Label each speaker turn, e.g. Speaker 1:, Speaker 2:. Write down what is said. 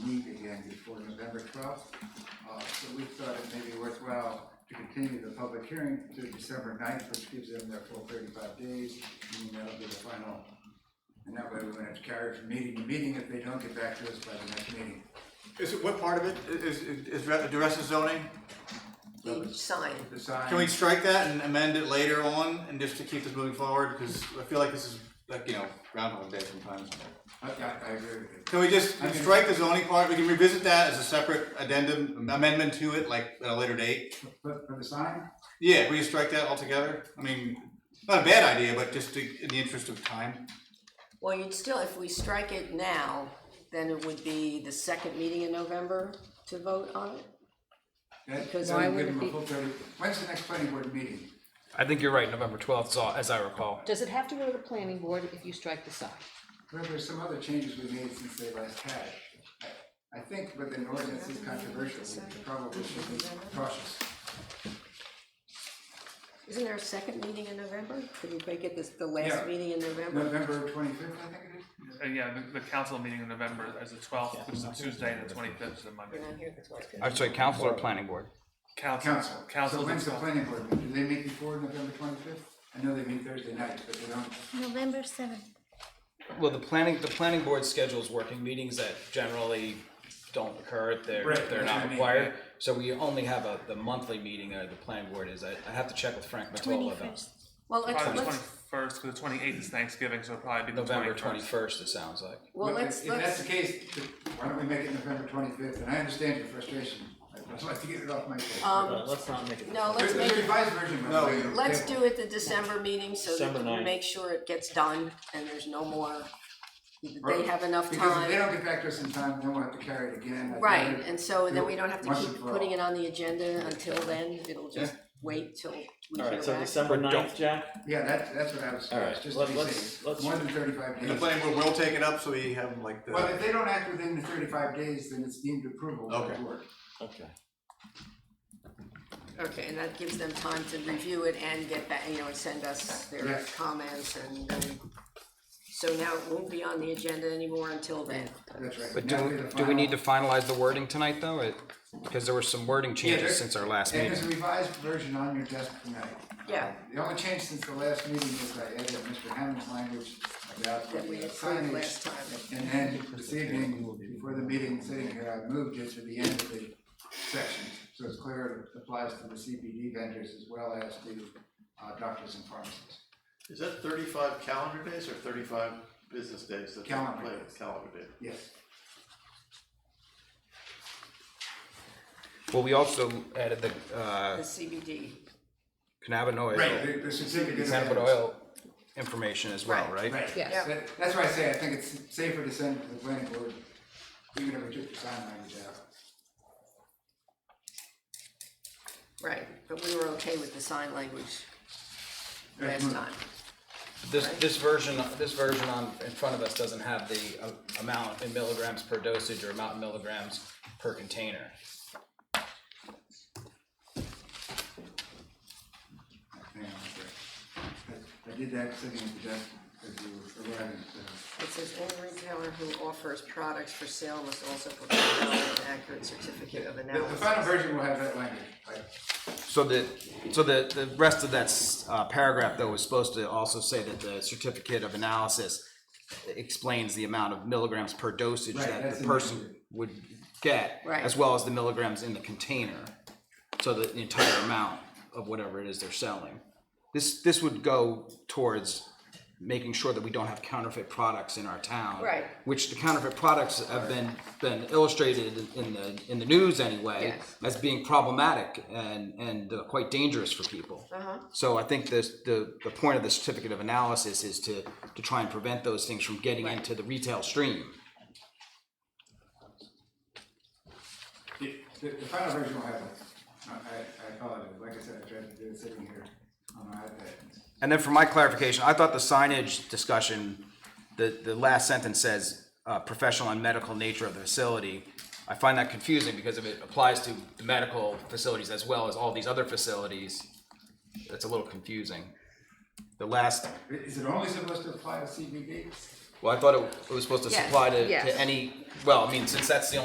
Speaker 1: before November twelfth. Uh, so we thought it may be worthwhile to continue the public hearing to December 9th, which gives them their full thirty-five days. And then that'll be the final, and that way we're gonna have to carry it from meeting to meeting if they don't get back to us by the next meeting.
Speaker 2: Is it, what part of it is, is, is re- the rest of zoning?
Speaker 3: each sign.
Speaker 1: The sign.
Speaker 2: Can we strike that and amend it later on and just to keep this moving forward? Because I feel like this is like, you know, groundhog day sometimes.
Speaker 1: I, I, I agree with you.
Speaker 2: Can we just
Speaker 1: I can-
Speaker 2: strike the zoning part? We can revisit that as a separate addendum, amendment to it, like at a later date.
Speaker 1: But for the sign,
Speaker 2: Yeah, we just strike that altogether. I mean, not a bad idea, but just to, in the interest of time.
Speaker 3: Well, you'd still, if we strike it now, then it would be the second meeting in November to vote on it?
Speaker 1: that,
Speaker 3: Because
Speaker 1: so we
Speaker 3: why
Speaker 1: give
Speaker 3: would
Speaker 1: them
Speaker 3: it
Speaker 1: a
Speaker 3: be-
Speaker 1: full thirty, when's the next planning board meeting?
Speaker 4: I think you're right, November twelfth, as I recall.
Speaker 5: Does it have to go to the planning board if you strike the sign?
Speaker 1: Well, there's some other changes we made since they last had. it. I- I think, but the ordinance is controversial, we probably should be cautious.
Speaker 3: Isn't there a second meeting in November? Could we make it this, the last
Speaker 1: Yeah.
Speaker 3: meeting in November?
Speaker 1: November twenty-fifth, I think it is?
Speaker 6: Uh, yeah, the, the council meeting in November is the twelfth, which is a Tuesday, and the twenty-fifth is a Monday.
Speaker 3: We're not here the 25th.
Speaker 4: I'm sorry, council or planning board?
Speaker 6: Council,
Speaker 1: Council, so
Speaker 6: council,
Speaker 1: when's the
Speaker 6: is-
Speaker 1: planning board meeting? Do they meet before November twenty-fifth? I know they meet Thursday nights, but they don't,
Speaker 7: November seventh.
Speaker 4: Well, the planning, the planning board schedules working meetings that generally don't occur, they're,
Speaker 1: Right,
Speaker 4: they're
Speaker 1: that's what I
Speaker 4: not
Speaker 1: mean,
Speaker 4: required. So we only have a, the monthly meeting, uh, the planning board is, I, I have to check with Frank Matola about
Speaker 7: Twenty-first.
Speaker 3: Well,
Speaker 6: probably
Speaker 3: let's,
Speaker 6: the
Speaker 3: let's,
Speaker 6: twenty-first, because the twenty-eighth is Thanksgiving, so it'll probably be the
Speaker 4: November
Speaker 6: twenty-first.
Speaker 4: twenty-first, it sounds like.
Speaker 3: well,
Speaker 1: Well, if
Speaker 3: let's,
Speaker 1: if that's the
Speaker 3: let's,
Speaker 1: case, th- why don't we make it November twenty-fifth? And I understand your frustration, I'd like to get it off my plate.
Speaker 3: um,
Speaker 8: Let's not make it.
Speaker 3: no,
Speaker 1: There's
Speaker 3: let's make
Speaker 1: there's a
Speaker 3: it,
Speaker 1: revised version, by the way. on the
Speaker 3: let's
Speaker 1: table.
Speaker 3: do it the December meeting so
Speaker 8: December
Speaker 3: that we
Speaker 8: ninth.
Speaker 3: make sure it gets done and there's no more. They
Speaker 1: Right.
Speaker 3: have enough
Speaker 1: Because if they
Speaker 3: time,
Speaker 1: don't get back to us in time, then we'll have to carry it again. I'd
Speaker 3: right,
Speaker 1: rather-
Speaker 3: and so then we don't have to
Speaker 1: Once and
Speaker 3: keep
Speaker 1: for all.
Speaker 3: putting it on the agenda until then, it'll just wait till we hear
Speaker 8: Alright, so
Speaker 3: back.
Speaker 8: December ninth, Jack?
Speaker 1: Yeah, that's, that's what I was,
Speaker 8: All right,
Speaker 1: just to
Speaker 8: let-
Speaker 1: be
Speaker 8: let's-
Speaker 1: safe,
Speaker 8: let's-
Speaker 1: more than thirty-five
Speaker 2: And the
Speaker 1: days.
Speaker 2: planning board will take it up, so we have like
Speaker 1: Well,
Speaker 2: the,
Speaker 1: if they don't act within the thirty-five days, then it's deemed approval by the
Speaker 2: Okay.
Speaker 1: board.
Speaker 8: Okay.
Speaker 3: Okay, and that gives them time to review it and get back, you know, and send us their
Speaker 1: Yes.
Speaker 3: comments and, then- so now it won't be on the agenda anymore until then.
Speaker 1: That's right.
Speaker 4: But
Speaker 1: Now
Speaker 4: do,
Speaker 1: be the
Speaker 4: we- do we need to
Speaker 1: final-
Speaker 4: finalize the wording tonight, though? It- Because there were some wording
Speaker 1: there-
Speaker 4: changes since our last
Speaker 1: And
Speaker 4: meeting.
Speaker 1: there's a revised version on your desk tonight. Um,
Speaker 3: Yeah.
Speaker 1: The only change since the last meeting is I added Mr. Hammond's language about the
Speaker 3: That we approved last
Speaker 1: signage.
Speaker 3: time.
Speaker 1: And then this evening, before the meeting, sitting here, I moved it to the end of the section. So it's clear it applies to the CBD vendors as well as to uh, doctors and pharmacists.
Speaker 9: Is that thirty-five calendar days or thirty-five business days? that they
Speaker 1: Calendar
Speaker 9: play?
Speaker 1: days.
Speaker 9: Calendar day.
Speaker 1: Yes.
Speaker 4: Well, we also added the,
Speaker 3: The
Speaker 4: uh,
Speaker 3: CBD,
Speaker 4: cannabinoid.
Speaker 1: The the certificate. of
Speaker 4: Cannabis
Speaker 1: address.
Speaker 4: oil information as well, right?
Speaker 1: Right.
Speaker 5: Yes.
Speaker 1: That- That's why I say I think it's safer to send it to the planning board, even if we took the sign language out.
Speaker 3: right, but we were okay with the sign language last
Speaker 1: Mhm.
Speaker 3: time.
Speaker 4: This, this version, this version on, in front of us doesn't have the uh, amount in milligrams per dosage or amount in milligrams per container.
Speaker 1: Hang on a sec. I I did that sitting at the desk as you were arriving, so.
Speaker 3: It says any retailer who offers products for sale must also provide an accurate certificate of
Speaker 1: The, the final
Speaker 3: analysis.
Speaker 1: version will have that language, right?
Speaker 4: So the, so the, the rest of that s- uh, paragraph though was supposed to also say that the certificate of analysis explains the amount of milligrams per dosage
Speaker 1: Right,
Speaker 4: that
Speaker 1: that's
Speaker 4: the
Speaker 1: in
Speaker 4: person
Speaker 1: there.
Speaker 4: would get,
Speaker 3: Right.
Speaker 4: as well as the milligrams in the container. So the the entire amount of whatever it is they're selling. This, this would go towards making sure that we don't have counterfeit products in our town.
Speaker 3: Right.
Speaker 4: Which the counterfeit products have been, been illustrated in- in the, in the news anyway
Speaker 3: Yes.
Speaker 4: as being problematic and, and uh, quite dangerous for people.
Speaker 3: Uh-huh.
Speaker 4: So I think this, the, the point of the certificate of analysis is to, to try and prevent those things from getting into the retail stream.
Speaker 1: The, the- the final version will have that. I, I- I apologize, like I said, I tried to do it sitting here on my iPad.
Speaker 4: And then for my clarification, I thought the signage discussion, the, the last sentence says, uh, professional and medical nature of the facility. I find that confusing because if it applies to the medical facilities as well as all these other facilities, that's a little confusing. The last,
Speaker 1: Is it only supposed to apply to CBD?
Speaker 4: well, I thought it, it was supposed to
Speaker 5: Yes,
Speaker 4: supply to,
Speaker 5: yes.
Speaker 4: to any, well, I mean, since that's the only